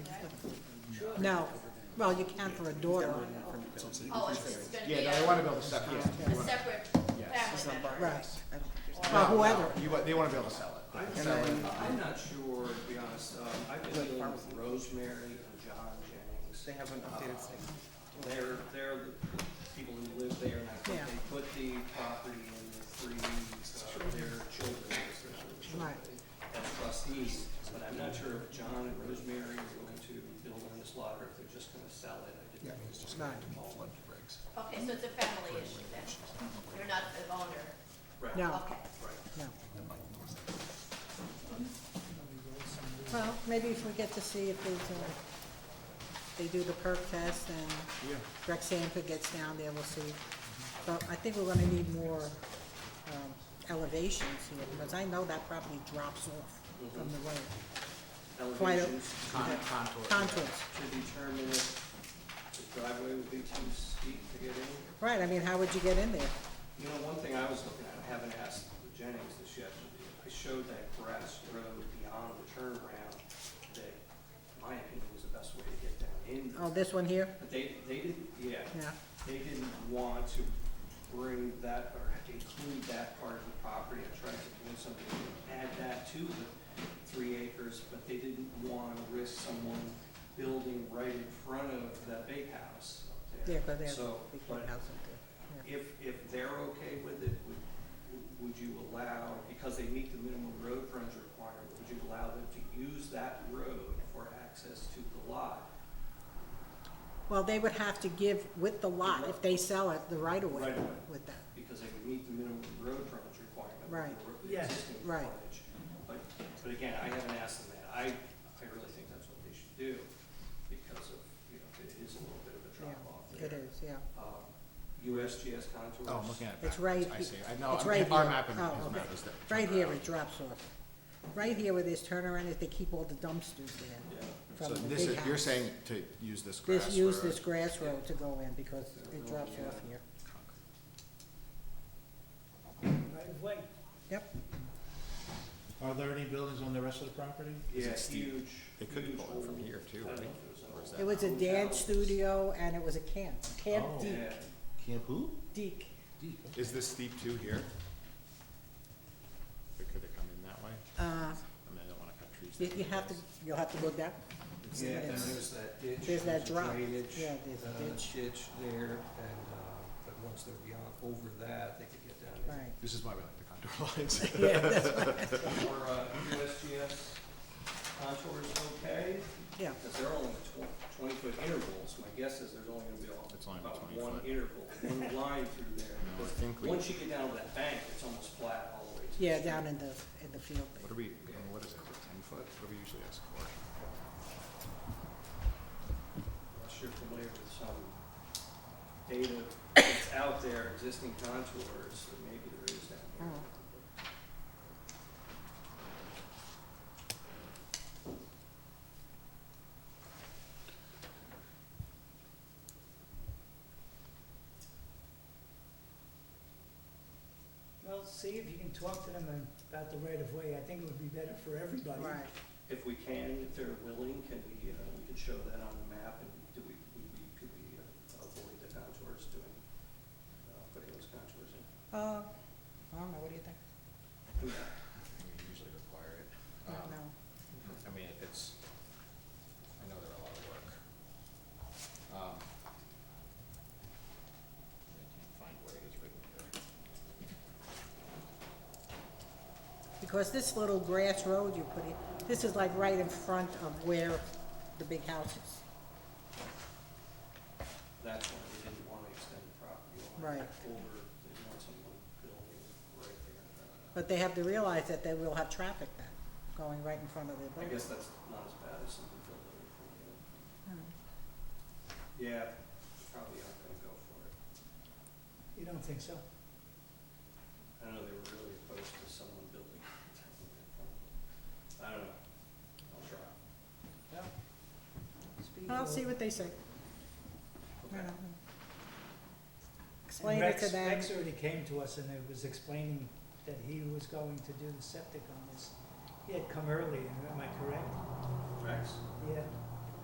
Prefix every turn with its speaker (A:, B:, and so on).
A: No, well, you can for a daughter,
B: Oh, it's just gonna be
C: Yeah, no,
B: a-
C: they wanna be able to sell, yeah.
B: a separate family member.
A: right, Well, whoever,
C: You, wa- they wanna be able to sell it.
D: I'm, I'm not sure, to be honest, um, I've been dealing with Rosemary and John Jennings. They haven't updated They're, they're the people who live there, and I think
A: Yeah.
D: they put the property in the three, uh, their children, their children.
A: Right.
D: As trustees, but I'm not sure if John and Rosemary are going to build on this lot, or if they're just gonna sell it, I didn't.
A: right,
B: Okay, so it's a family issue then. You're not the owner.
D: Right,
A: no,
B: Okay.
D: right.
A: no. Well, maybe if we get to see if there's a, they do the perk test and Rex Sanford gets down there, we'll see. But I think we're gonna need more, um, elevations here, because I know that property drops off from the road. Quite a-
D: Elevations
C: Con-
A: Yeah.
C: Contour.
A: Contours.
D: to determine if the driveway would be too steep to get in.
A: Right, I mean, how would you get in there?
D: You know, one thing I was looking at, I haven't asked Jennings this yet, I showed that grass road beyond the turnaround that, in my opinion, was the best way to get down in.
A: Oh, this one here?
D: But they, they didn't, yeah,
A: Yeah,
D: they didn't want to bring that or include that part of the property. I tried to convince somebody to add that to the three acres, but they didn't want to risk someone building right in front of that big house up
A: yeah,
D: there.
A: because they have
D: So,
A: big
D: but
A: house up there. yeah.
D: if, if they're okay with it, would, would you allow, because they meet the minimum road frontage requirement, would you allow them to use that road for access to the lot?
A: Well, they would have to give with the lot, if they sell it, the right of way
D: Right-of-way.
A: with that.
D: because they would meet the minimum road frontage requirement. for
A: Right.
D: the ro-
E: Yeah.
D: Existing
A: Right.
D: frontage. But, but again, I haven't asked them that. I, I really think that's what they should do because of, you know, it is a little bit of a drop off
A: Yeah,
D: there.
A: it is, yeah.
D: Um, USGS contours.
C: Oh, I'm looking at it
A: It's
C: backwards,
A: right
C: I
A: he-
C: see, I know,
A: it's
C: I'm-
A: right
C: our
A: here.
C: map and
A: Oh,
C: his
A: okay.
C: map is there.
A: Right here, it drops off. Right here where there's turnaround, if they keep all the dumpsters
D: Yeah.
A: there
C: So
A: from the
C: this
A: big
C: is, you're
A: house.
C: saying to use this grass
A: This, use
C: road.
A: this grass road to go in because it drops off here.
E: right of way.
A: Yep,
F: Are there any buildings on the rest of the property?
C: Is it
D: Yeah,
C: steep?
D: huge.
C: They could
D: huge
C: pull it from
D: old-
C: here too,
D: I don't know
C: right?
D: if it was an
C: Or is
D: old
C: that-
A: it was a dance
D: house.
A: studio and it was a camp, Camp
F: Oh.
A: Deek,
D: Yeah.
F: Camp who?
A: Deek.
C: Is this steep too here? Or could it come in that way?
A: Uh,
C: I mean, I don't wanna cut trees.
A: you,
C: down,
A: you
C: I
A: have to,
C: guess.
A: you'll have to look that,
D: Yeah,
A: Yeah.
D: then there's that ditch.
A: There's that
D: a
A: drop.
D: drainage,
A: Yeah, there's a
D: uh,
A: ditch.
D: there, and, uh, but once they're beyond, over that, they could get down there.
A: right.
C: This is why we like the contour lines.
A: Yeah, that's right.
D: Or, uh, USGS contours okay,
A: Yeah,
D: because they're only tw- twenty-foot intervals, my guess is there's only gonna be
C: It's
D: all-
C: only
D: about
C: 20
D: one
C: foot.
D: interval, one line through
C: No,
D: there.
C: I
D: Because
C: think we-
D: Once you get down to that bank, it's almost flat all the way to. the
A: yeah,
D: street.
A: down in the, in the field. there.
C: What are we, I mean, what is it, ten foot? What do we usually ask for?
D: Unless you're familiar with some data that's out there, existing contours, or maybe there is down
A: Oh.
D: here.
E: Well, see if you can talk to them about the right of way, I think it would be better for everybody.
A: Right,
D: If we can, if they're willing, can we, uh, we could show that on the map, and do we, we, we- could we uh, avoid the contours doing, uh, putting those contours in?
A: uh, I don't know, what do you think?
D: I mean,
C: I think We usually require it.
A: I don't
C: Um,
A: know.
C: I mean, it's, I know they're a lot of work. Um, I can't find where it is written here.
A: Because this little grass road you put in, this is like right in front of where the big house is.
D: That's why we didn't want to extend the property line
A: Right.
D: over, they want someone building right there. Uh,
A: But they have to realize that they will have traffic then, going right in front of their
D: I
A: building.
D: guess that's not as bad as something building in front of it. Yeah, probably aren't gonna go for it.
E: You don't think so?
D: I don't know, they were really opposed to someone building. I don't know, I'll try.
E: Well, speak
A: I'll
E: for-
A: see what they say. I
D: Okay.
A: don't know. Explain it
E: Rex-
A: to them.
E: Rex already came to us and it was explaining that he was going to do the septic on this. He had come early, am I correct?
D: Rex?
E: Yeah.